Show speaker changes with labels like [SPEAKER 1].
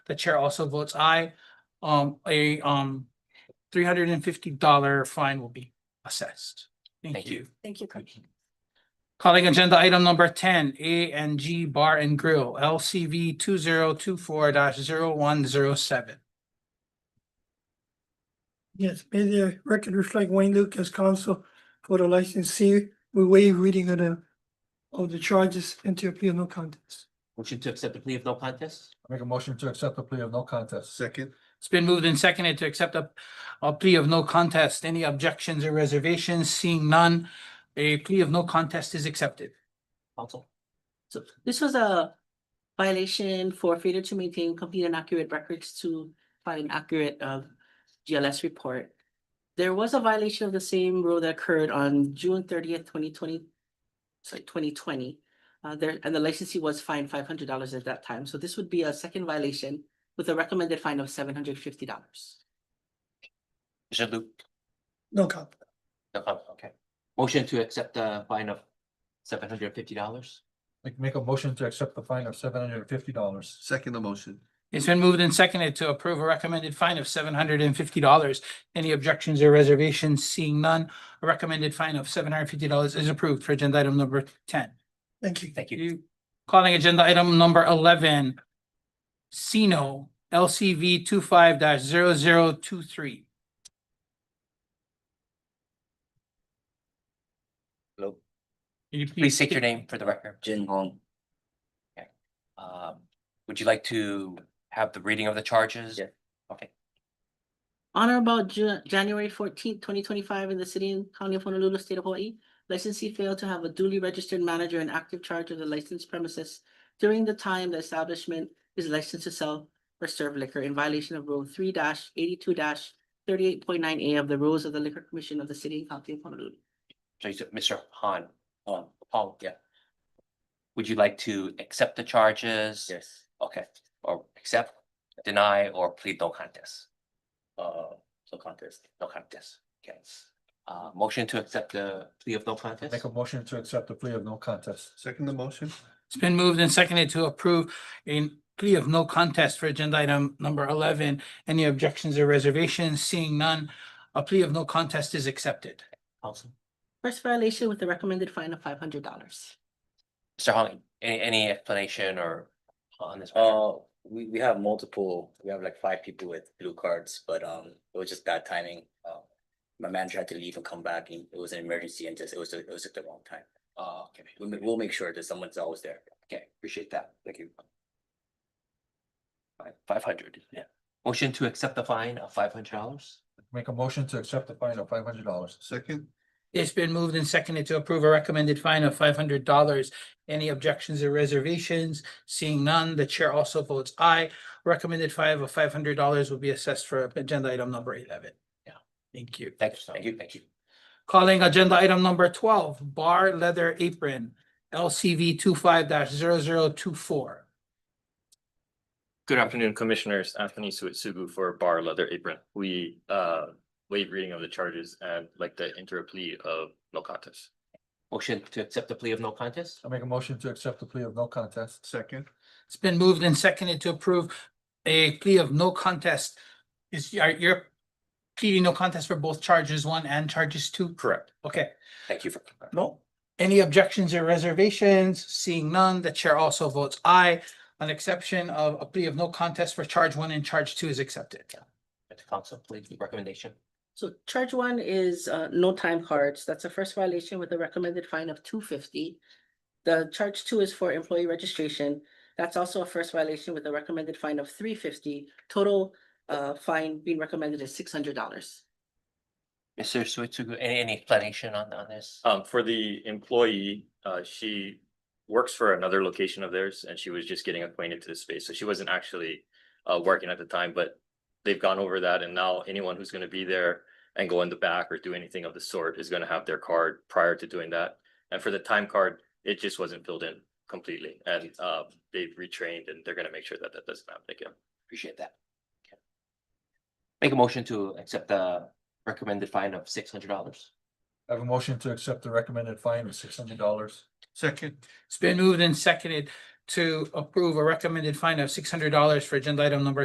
[SPEAKER 1] The chair also votes aye. Um, a, um, three hundred and fifty dollar fine will be assessed. Thank
[SPEAKER 2] Thank you.
[SPEAKER 1] you.
[SPEAKER 3] Thank you, Coach.
[SPEAKER 1] Calling agenda item number ten, A and G Bar and Grill, LCV two zero two four dash zero one zero seven.
[SPEAKER 4] Yes, may the record reflect Wayne Lucas, counsel for the licensee. We waive reading of the, of the charges and to appeal no contest.
[SPEAKER 2] Motion to accept the plea of no contest?
[SPEAKER 5] Make a motion to accept the plea of no contest. Second.
[SPEAKER 1] It's been moved and seconded to accept a, a plea of no contest. Any objections or reservations? Seeing none, a plea of no contest is accepted.
[SPEAKER 2] Counsel?
[SPEAKER 3] So this was a violation for failure to maintain complete and accurate records to file an accurate uh GLS report. There was a violation of the same rule that occurred on June thirtieth, twenty twenty. Sorry, twenty twenty. Uh there, and the licensee was fined five hundred dollars at that time, so this would be a second violation with a recommended fine of seven hundred fifty dollars.
[SPEAKER 2] Jaloop?
[SPEAKER 4] No contest.
[SPEAKER 2] No comment, okay. Motion to accept the fine of seven hundred and fifty dollars?
[SPEAKER 5] Make, make a motion to accept the fine of seven hundred and fifty dollars.
[SPEAKER 6] Second the motion.
[SPEAKER 1] It's been moved and seconded to approve a recommended fine of seven hundred and fifty dollars. Any objections or reservations? Seeing none, a recommended fine of seven hundred and fifty dollars is approved for agenda item number ten.
[SPEAKER 4] Thank you.
[SPEAKER 2] Thank you.
[SPEAKER 1] You calling agenda item number eleven. Sino LCV 25 five
[SPEAKER 2] Hello.
[SPEAKER 1] you please
[SPEAKER 2] Please state your name for the record. Jin Hong. Okay. Um, would you like to have the reading of the charges? Yeah. Okay,
[SPEAKER 3] On or about Ju- January fourteenth, twenty twenty-five in the city and county of Honolulu, state of Hawaii. Licensee failed to have a duly registered manager in active charge of the licensed premises during the time the establishment is licensed to sell or serve liquor in violation of Rule three eighty-two thirty-eight point nine A of the rules of the Liquor Commission of the city and county of Honolulu.
[SPEAKER 2] so you said Mr. Han, um, Paul, yeah. Would you like to accept the charges?
[SPEAKER 7] Yes,
[SPEAKER 2] Okay, or accept, deny, or plead no contest?
[SPEAKER 7] uh, so contest,
[SPEAKER 2] No contest, okay. Uh, motion to accept the plea of no contest?
[SPEAKER 5] Make a motion to accept the plea of no contest.
[SPEAKER 6] Second the motion.
[SPEAKER 1] It's been moved and seconded to approve a plea of no contest for agenda item number eleven. Any objections or reservations? Seeing none, a plea of no contest is accepted.
[SPEAKER 2] Counsel?
[SPEAKER 3] First violation with a recommended fine of five hundred dollars.
[SPEAKER 2] Mr. Hong, any, any explanation or on this? matter?
[SPEAKER 7] uh, we, we have multiple, we have like five people with blue cards, but, um, it was just bad timing. Um, My manager had to leave and come back, and it was an emergency, and just, it was, it was at the wrong time.
[SPEAKER 2] Uh, okay,
[SPEAKER 7] We'll, ma- we'll make sure that someone's always there.
[SPEAKER 2] okay, appreciate that, thank you. Five, five hundred, yeah. Motion to accept the fine of five hundred dollars?
[SPEAKER 5] Make a motion to accept the fine of five hundred dollars.
[SPEAKER 6] Second,
[SPEAKER 1] It's been moved and seconded to approve a recommended fine of five hundred dollars. Any objections or reservations? Seeing none, the chair also votes aye. Recommended fine of five hundred dollars will be assessed for agenda item number eleven.
[SPEAKER 2] Yeah.
[SPEAKER 1] Thank you.
[SPEAKER 2] Thank you, thank you, thank you.
[SPEAKER 1] Calling agenda item number twelve, Bar Leather Apron, LCV 25 five
[SPEAKER 8] Good afternoon, Commissioners. Anthony Suetsugu for Bar Leather Apron. We uh waive reading of the charges and like the inter plea of no contest.
[SPEAKER 2] Motion to accept the plea of no contest?
[SPEAKER 5] I make a motion to accept the plea of no contest.
[SPEAKER 6] second,
[SPEAKER 1] It's been moved and seconded to approve a plea of no contest. Is, are you're pleading no contest for both charges one and charges two?
[SPEAKER 8] Correct.
[SPEAKER 1] Okay.
[SPEAKER 2] Thank you for.
[SPEAKER 1] No. Any objections or reservations? Seeing none, the chair also votes aye. An exception of a plea of no contest for charge one and charge two is accepted.
[SPEAKER 2] At the council, please, recommendation.
[SPEAKER 3] So charge one is uh no time cards. That's a first violation with a recommended fine of two fifty. The charge two is for employee registration. That's also a first violation with a recommended fine of three fifty. Total uh fine being recommended is six hundred dollars.
[SPEAKER 2] Mr. Suetsugu, any, any explanation on, on this?
[SPEAKER 8] Um, for the employee, uh, she works for another location of theirs and she was just getting acquainted to the space. So she wasn't actually uh working at the time, but they've gone over that and now anyone who's gonna be there and go in the back or do anything of the sort is gonna have their card prior to doing that. And for the time card, it just wasn't filled in completely and uh they've retrained and they're gonna make sure that that doesn't happen again.
[SPEAKER 2] Appreciate that. Okay. Make a motion to accept the recommended fine of six hundred dollars.
[SPEAKER 5] I have a motion to accept the recommended fine of six hundred dollars.
[SPEAKER 6] second,
[SPEAKER 1] It's been moved and seconded to approve a recommended fine of six hundred dollars for agenda item number